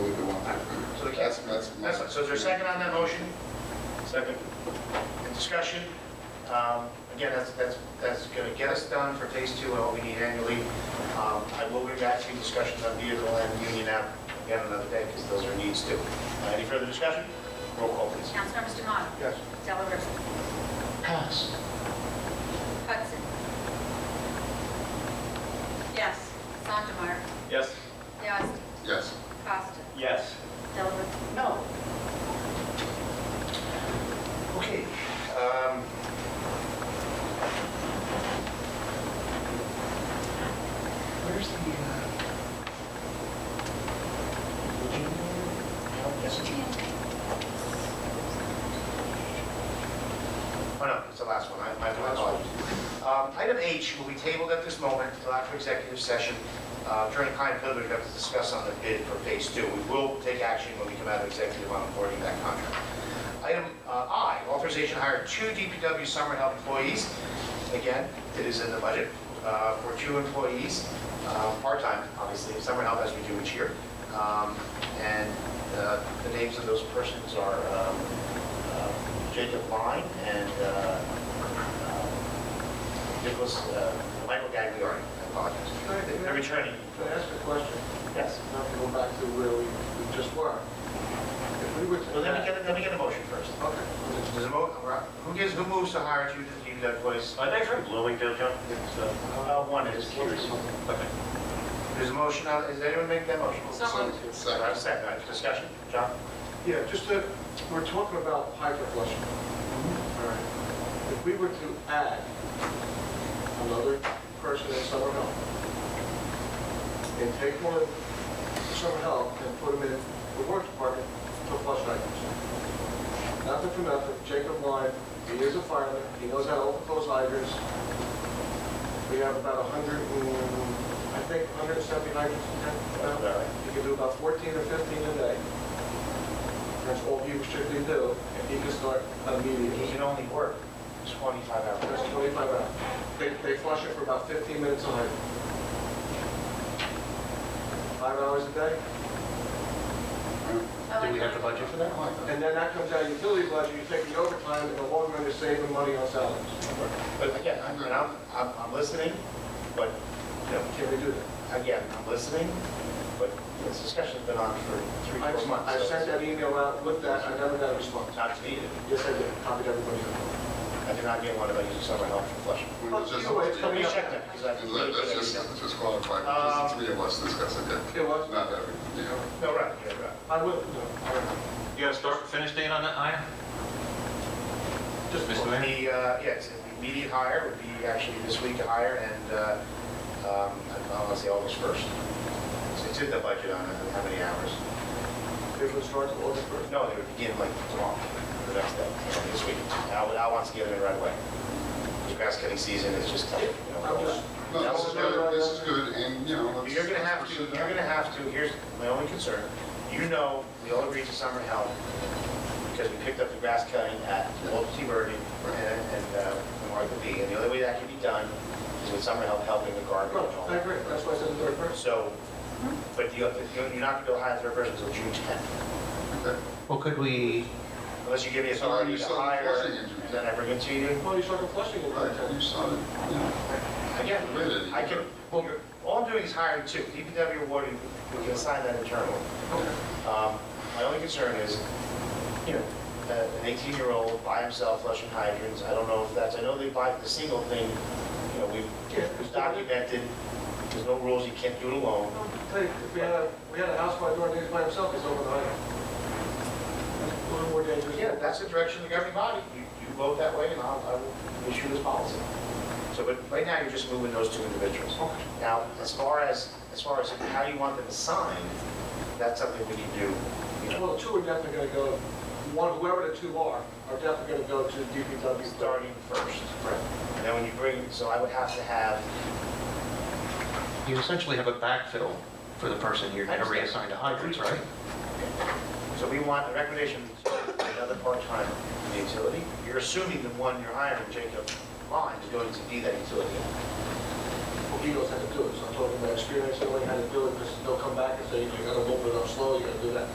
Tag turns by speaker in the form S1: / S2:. S1: that's my.
S2: That's, fine. so is there a second on that motion? Second. In discussion, um, again, that's, that's, that's gonna get us done for phase two, and what we need annually. Um, I will be back to discussions on vehicle and union app again another day, because those are needs too. Uh, Any further discussion? Roll call, please.
S3: Councilmember Demotta.
S2: Yes.
S3: Della Ripa.
S2: Pass.
S3: Hudson. Yes. Sandemeyer.
S2: Yes.
S3: Yazdi.
S1: Yes,
S3: Costa.
S2: Yes.
S3: Della Ripa.
S2: No. Okay. um, Where's the, uh? Yes, Oh, no, it's the last one, I, my my apologies. Um, Item H will be tabled at this moment, allowed for executive session. Uh, Attorney Klein Pillard, we have to discuss on the bid for phase two. We will take action when we come out of executive on awarding that contract. Item uh, I, authorization to hire two DPW summer help employees. Again, it is in the budget uh, for two employees, uh, part-time, obviously, summer help as we do each year. Um, And uh, the names of those persons are um, uh, Jacob Line and uh, uh, Nicholas, uh, Michael Gagliardi, I apologize.
S4: Can I- can I-
S2: They're returning.
S4: Can I ask a question?
S2: Yes.
S4: Now we go back to where we we just were. If we were to...
S2: Well, let me get, let me get a motion first.
S4: Okay.
S2: There's a mo, uh, who gives, who moves to hire two DPW employees?
S5: Are they from Bloomingdale, John? So,
S2: Uh, One is.
S5: Okay.
S2: There's a motion, uh, does anyone make that motion?
S3: So
S2: Uh,
S1: second,
S2: Second, uh, discussion, John?
S4: Yeah, just to, we're talking about hydro flushing. All right. If we were to add another person in summer help, and take one summer help and put him in the work department to flush hydrants. Nothing for nothing, Jacob Line, he is a fireman, he knows how to open close hydrants. We have about 100, and- I think 170 hydrants in town. now. You can do about 14 or 15 a day. That's all he strictly do, and he can start
S2: He
S4: immediately.
S2: can only work 25 hours.
S4: That's 25 hours. They, they flush it for about 15 minutes a night. Five hours a day,
S1: do we have the budget for that?
S4: and then that comes out of utility budget, you're taking overtime, and the long run, you're saving money on salaries.
S2: But again, I mean, I'm, I'm, I'm listening, but, you know,
S4: Can we do that?
S2: again, I'm listening, but this discussion's been on for three,
S4: I
S2: four months.
S4: I
S2: so
S4: sent that email out, looked at, I never got a response.
S2: it's Not needed.
S4: Yes, I did, copied everybody.
S2: I did not get one of those in summer help for Flushing.
S1: We were just-
S4: Either way, it's
S2: Let me
S4: coming up.
S2: check that, because I.
S1: And let- Let's just, let's just qualify,
S2: Um,
S1: because the three of us discuss it, okay?
S4: It was,
S1: Not every, you know.
S2: No, right, yeah, right.
S4: I will, no, I don't.
S5: You got a start and finish date on that item?
S4: Just
S5: Mr. Mayor?
S2: The, uh, yes, the immediate hire would be actually this week to hire, and, uh, um, I want to say August 1st. So It's in the budget on it, how many hours.
S4: It was starts August 1st.
S2: No, they would begin like tomorrow, the next day, or this week. I would, I want to get it in right away. The grass cutting season is just, you
S4: I'm
S2: know.
S4: just-
S1: No, this is good, this is good, and, you know, let's.
S2: You're gonna have
S1: let's
S2: to,
S1: pursue that.
S2: you're gonna have to, here's my only concern. You know, we all agreed to summer help because we picked up the grass cutting at Old T. Bergen and, and uh, Martha B. And the only way that can be done is with summer help helping the garbage. and all
S4: No, I
S2: that.
S4: agree, that's why I said the third person.
S2: So, but you, you're not gonna go hire a third person until June 10th,
S1: Okay.
S6: Well, could we,
S2: unless you give me
S1: So are
S2: authority
S1: you
S2: to
S1: still
S2: hire
S1: enforcing it?
S2: and then I bring it to you.
S4: Well, you're talking flushing in
S1: Right, you saw it, you know.
S2: Again,
S1: Really?
S2: I can, you're- all I'm doing is hiring two. DPW awarded, we can assign that internally. Um, My only concern is, you know, a- an 18-year-old by himself flushing hydrants, I don't know if that's, I know they buy the single thing, you know, we've,
S4: Yeah.
S2: it's documented, there's no rules, you can't do it alone.
S4: Hey, if we had a, we had a house by door, he's by himself, he's over the height. A little more dangerous.
S2: Again, that's the direction of the governing body. You you vote that way, and I'll- I will issue this policy. So, but right now, you're just moving those two individuals.
S4: Okay.
S2: Now, as far as, as far as how you want them assigned, that's something we can do, you know,
S4: Well, the two are definitely gonna go, one, whoever the two are, are definitely gonna go to DPW.
S2: starting first. And then when you bring, so I would have to have,
S6: you essentially have a backfill for the person you're going to reassign to hydrants, right?
S2: so we want the recommendation, another part-time in the utility. You're assuming the one you're hiring, Jacob Line, is going to be that utility.
S4: Well, he knows how to do it, so I'm talking about experience, knowing how to do it, because they'll come back and say, you gotta open it up slow, you gotta do that.